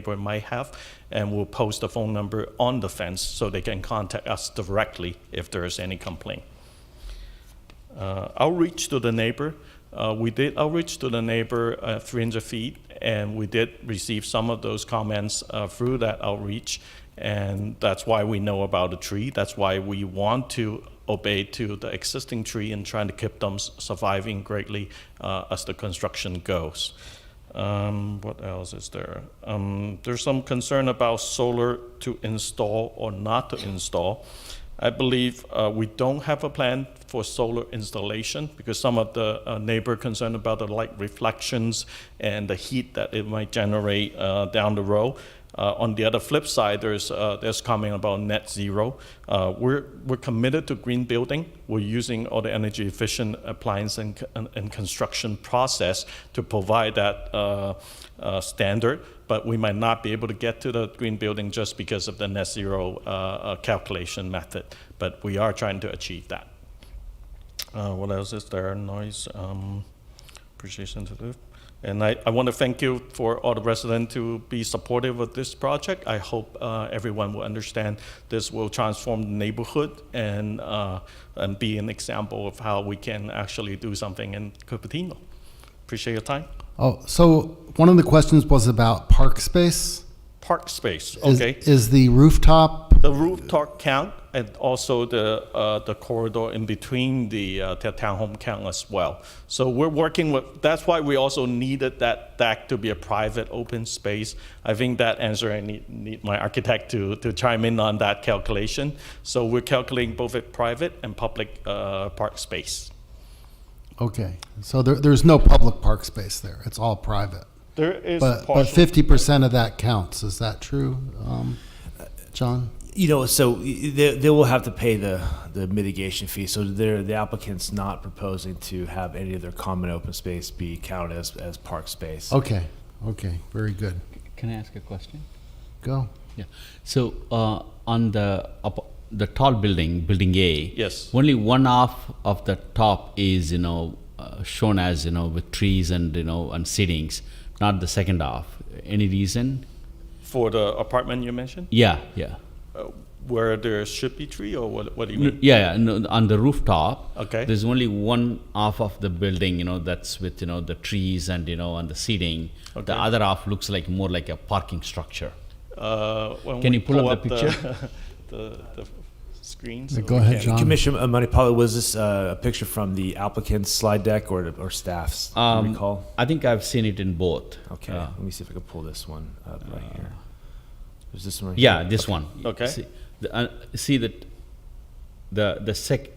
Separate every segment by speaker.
Speaker 1: neighbor might have, and we'll post the phone number on the fence so they can contact us directly if there is any complaint. Uh, outreach to the neighbor, uh, we did outreach to the neighbor uh, 300 feet, and we did receive some of those comments uh, through that outreach, and that's why we know about the tree. That's why we want to obey to the existing tree and trying to keep them s- surviving greatly uh, as the construction goes. Um, what else is there? Um, there's some concern about solar to install or not to install. I believe uh, we don't have a plan for solar installation because some of the uh, neighbor concerned about the light reflections and the heat that it might generate uh, down the road. Uh, on the other flip side, there's uh, there's comment about net zero. Uh, we're we're committed to green building. We're using all the energy efficient appliance and, c- and, and construction process to provide that uh, uh, standard. But we might not be able to get to the green building just because of the net zero uh, uh, calculation method. But we are trying to achieve that. Uh, what else is there? Noise, um, appreciation to the, and I, I want to thank you for all the residents to be supportive of this project. I hope uh, everyone will understand this will transform the neighborhood and uh, and be an example of how we can actually do something in Cupertino. Appreciate your time.
Speaker 2: Oh, so one of the questions was about park space.
Speaker 1: Park space,
Speaker 2: Is-
Speaker 1: okay.
Speaker 2: Is the rooftop,
Speaker 1: The rooftop count and also the, uh, the corridor in between the, uh, the townhome count as well. So we're working with, that's why we also needed that deck to be a private open space. I think that answer, I need, need my architect to, to chime in on that calculation. So we're calculating both a private and public, uh, park space.
Speaker 2: okay, so there, there's no public park space there, it's all private.
Speaker 1: There is
Speaker 2: But, but
Speaker 1: partial,
Speaker 2: fifty percent of that counts, is that true, um, John?
Speaker 1: Uh,
Speaker 3: You know, so they, they will have to pay the, the mitigation fee. So they're, the applicant's not proposing to have any of their common open space be counted as, as park
Speaker 4: Um,
Speaker 3: space.
Speaker 2: Okay, okay, very good,
Speaker 4: Can I ask a question?
Speaker 2: go.
Speaker 4: Yeah. So uh, on the up, the tall building, building A.
Speaker 1: Yes.
Speaker 4: Only one half of the top is you know uh, shown as you know with trees and you know and seatings, not the second half. Any reason?
Speaker 1: for the apartment you mentioned,
Speaker 4: Yeah. Yeah.
Speaker 1: uh, where there should be tree or what, what do you
Speaker 4: No,
Speaker 1: mean?
Speaker 4: yeah, yeah no, on the rooftop.
Speaker 1: Okay.
Speaker 4: There's only one half of the building, you know, that's with you know the trees and you know and the seating.
Speaker 1: Okay.
Speaker 4: The other half looks like more like a parking structure.
Speaker 1: Uh, when
Speaker 4: Can
Speaker 1: we
Speaker 4: you pull up the
Speaker 1: The, the screen.
Speaker 2: Yeah,
Speaker 1: so
Speaker 2: Go
Speaker 1: we
Speaker 2: ahead,
Speaker 1: can-
Speaker 2: John.
Speaker 3: Commissioner Moneypalo, was this uh, a picture from the applicant's slide deck or, or staff's? Do you
Speaker 4: Um,
Speaker 3: recall?
Speaker 4: I think I've seen it in both.
Speaker 3: Okay,
Speaker 4: Uh,
Speaker 3: let me see if I can pull this one up right here. Is this one? Right
Speaker 4: Yeah,
Speaker 3: here?
Speaker 4: this one.
Speaker 1: Okay.
Speaker 4: See, the, uh, see that the the sec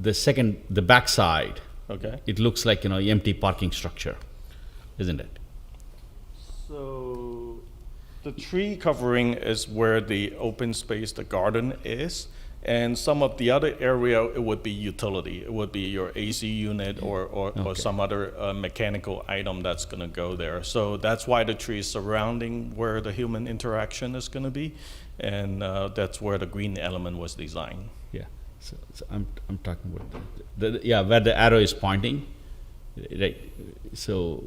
Speaker 4: the second the backside.
Speaker 1: Okay.
Speaker 4: It looks like you know empty parking structure, isn't it?
Speaker 1: So the tree covering is where the open space, the garden is. And some of the other area, it would be utility. It would be your AC unit or, or, or
Speaker 4: Okay.
Speaker 1: some other uh, mechanical item that's going to go there. So that's why the tree is surrounding where the human interaction is going to be. And uh, that's where the green element was designed.
Speaker 4: Yeah. So, so I'm I'm talking about the, the, yeah where the arrow is pointing, right? So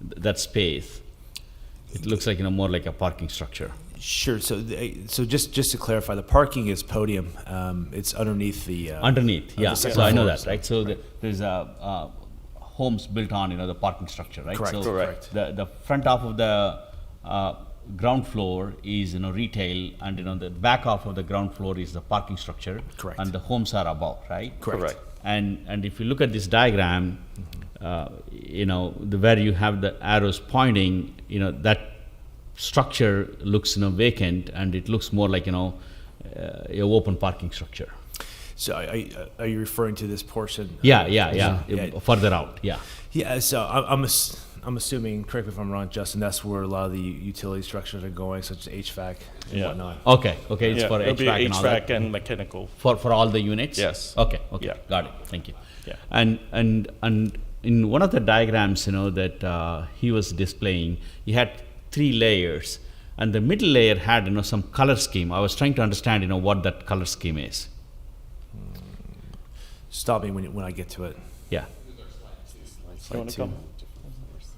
Speaker 4: th- that space, it looks like you know more like a parking structure.
Speaker 3: Sure, so, the- so just, just to clarify, the parking is podium. Um, It's underneath the. uh,
Speaker 4: underneath.
Speaker 3: the
Speaker 4: Yeah,
Speaker 3: second
Speaker 4: so I know
Speaker 3: floor,
Speaker 4: that, right? So the- there's a uh, homes built on you know the parking structure, right?
Speaker 3: Correct.
Speaker 4: So
Speaker 1: Correct.
Speaker 4: The the front half of the uh, ground floor is you know retail, and you know the back half of the ground floor is the parking structure.
Speaker 3: Correct.
Speaker 4: And the homes are above, right?
Speaker 3: Correct.
Speaker 1: Correct.
Speaker 4: And and if you look at this diagram,
Speaker 3: Mm-hmm.
Speaker 4: uh, you know the where you have the arrows pointing, you know that structure looks you know vacant, and it looks more like you know uh, a open parking structure.
Speaker 3: So are- are you- are you referring to this portion?
Speaker 4: Yeah, yeah, yeah.
Speaker 3: Yeah.
Speaker 4: Uh, Further out, yeah.
Speaker 3: Yeah, so I'm, I'm, ass- I'm assuming, correct me if I'm wrong, Justin, that's where a lot of the utility structures are going, such as HVAC and
Speaker 1: Yeah.
Speaker 3: whatnot.
Speaker 4: Okay, okay. It's
Speaker 1: Yeah,
Speaker 4: for
Speaker 1: it'll be
Speaker 4: HVAC and all that.
Speaker 1: HVAC and mechanical.
Speaker 4: For for all the units.
Speaker 1: Yes.
Speaker 4: Okay. Okay.
Speaker 1: Yeah.
Speaker 4: Got it. Thank you.
Speaker 1: Yeah.
Speaker 4: And and and in one of the diagrams, you know that uh, he was displaying, he had three layers, and the middle layer had you know some color scheme. I was trying to understand, you know, what that color scheme is.
Speaker 3: Stop me when, you- when I get to it.
Speaker 4: Yeah.
Speaker 1: You wanna
Speaker 3: Slide two.
Speaker 1: come?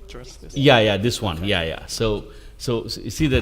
Speaker 1: Address this?
Speaker 4: Yeah, yeah. This one. Yeah, yeah. So So s- you see the